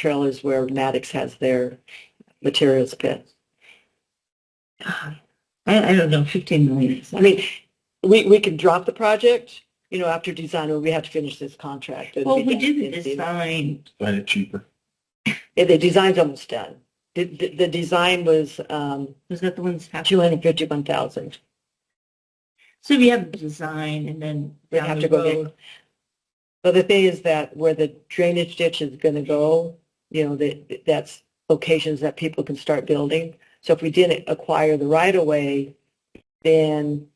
Trail is where Maddox has their materials pit. I, Uh-huh. I don't know, 15 million. I mean, we, we could drop the project, you know, after design, or we have to finish this contract. It'll Well, be we done. did it It'll this be- time. Find it cheaper. Yeah, The design's almost done. The, the, the design was, um, Was that the one's half? two hundred fifty-one thousand. So we have the design and then We down have the to go get- road. But the thing is that where the drainage ditch is gonna go, you know, that, that's locations that people can start building. So if we didn't acquire the right of way, then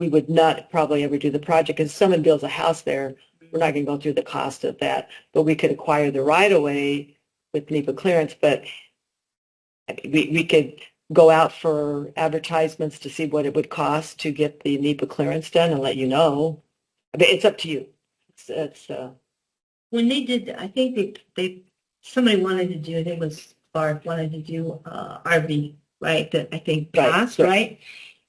we would not probably ever do the project. If someone builds a house there, we're not gonna go through the cost of that. But we could acquire the right of way with NEPA clearance, but we, we could go out for advertisements to see what it would cost to get the NEPA clearance done and let you know. I mean, it's up to you. It's, it's, uh, When they did, I think they, they, somebody wanted to do, I think it was Clark, wanted to do uh, RV, right? That I think Right, passed, right. right?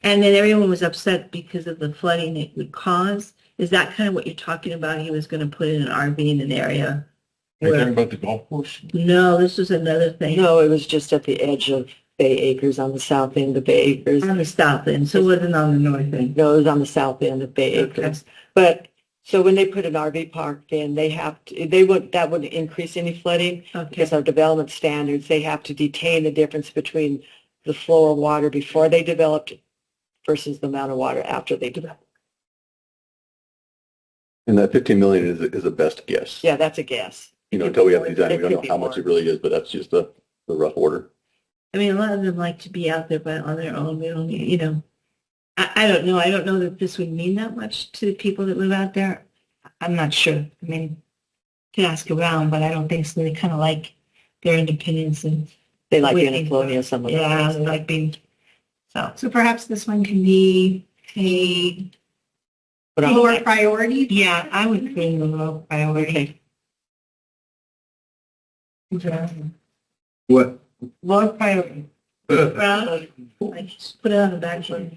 And then everyone was upset because of the flooding it would cause. Is that kind of what you're talking about? He was going to put in an RV in an area? Are you where- talking about the golf course? No, this was another thing. no, it was just at the edge of Bay Acres on the south end of Bay Acres. On the south end, so it wasn't on the north end. No, it was on the south end of Bay Okay. Acres. But, so when they put an RV park in, they have to, they would, that would increase any flooding Okay. because our development standards, they have to detain the difference between the flow of water before they developed versus the amount of water after they developed. And that 15 million is, is a best guess. Yeah, that's a guess. You know, until we have the design, we don't know how much it really is, but that's just the, the rough order. I mean, a lot of them like to be out there by on their own. We don't, need- you know, I, I don't know. I don't know that this would mean that much to the people that live out there. I'm not sure. I mean, could ask around, but I don't think so. They kind of like their independence and They like We being in think- Colonial, some of them. yeah, they like being so. So perhaps this one can be a But I'm- priority. Yeah, I would put it a low priority. Yeah, What? Low priority. Put Well, Like just put it on the back burner.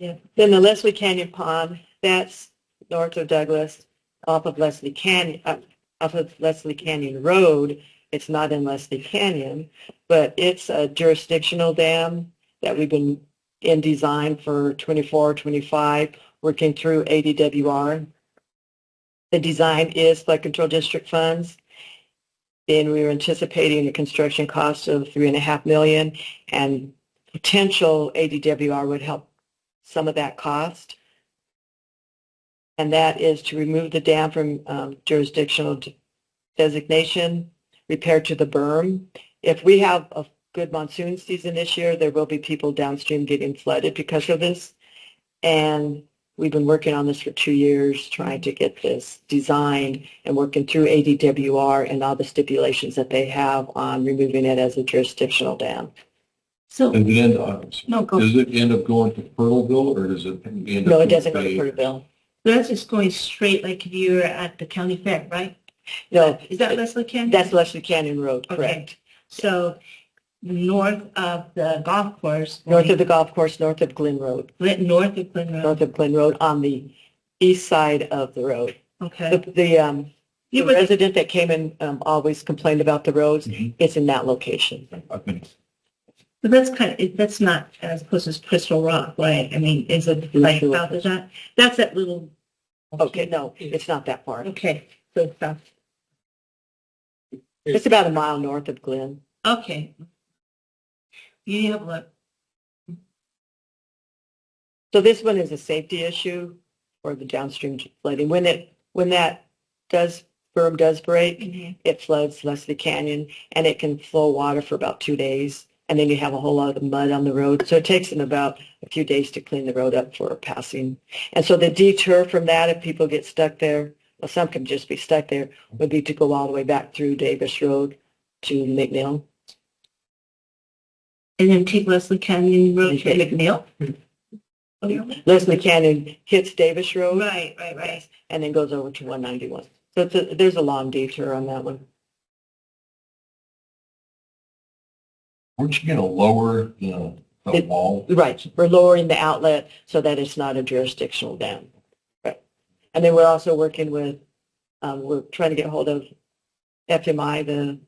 Then the Leslie Canyon Pond, that's north of Douglas, off of Leslie Canyon, uh, off of Leslie Canyon Road. It's not in Leslie Canyon, but it's a jurisdictional dam that we've been in design for 24, 25, working through ADWR. The design is flood control district funds. Then we were anticipating a construction cost of three and a half million and potential ADWR would help some of that cost. And that is to remove the dam from um, jurisdictional d- designation, repair to the berm. If we have a good monsoon season this year, there will be people downstream getting flooded because of this. And we've been working on this for two years, trying to get this designed and working through ADWR and all the stipulations that they have on removing it as a jurisdictional dam. So, Does it end, up- no, go. uh, does it end up going to Turtleville or does it? end up No, it going doesn't go to Bay- Porterville. That's just going straight like if you were at the county fair, right? No, Is that Leslie Canyon? that's Leslie Canyon Road, Okay. correct. So north of the golf course. North of the golf course, north of Glen Road, Glen- North of Glen Road, north of Glen Road, on the east side of the road. The, okay. the, um, the You would- resident that came in, um, always complained about the roads. Mhm. It's in that location. I think But that's kind of, it- that's not as close as Crystal Rock, right? I mean, is it like Sure. south of that? That's that little. Okay, no, it's not that far. Okay, so south, It's about a mile north of Glen. okay. You have a, So this one is a safety issue for the downstream flooding. When it, when that does, berm does break, it floods Leslie Canyon and it can flow water for about two days. And then you have a whole lot of mud on the road. So it takes them about a few days to clean the road up for passing. And so the detour from that, if people get stuck there, well, some can just be stuck there, would be to go all the way back through Davis Road to McNeil. and then take Leslie Canyon Road to Okay. McNeil? Leslie Canyon hits Davis Road Right, right, right. and then goes over to 191. So it's a, there's a long detour on that one. Aren't you going to lower the, the It- wall? Right, we're lowering the outlet so that it's not a jurisdictional dam. Right. And then we're also working with, um, we're trying to get hold of FMI, the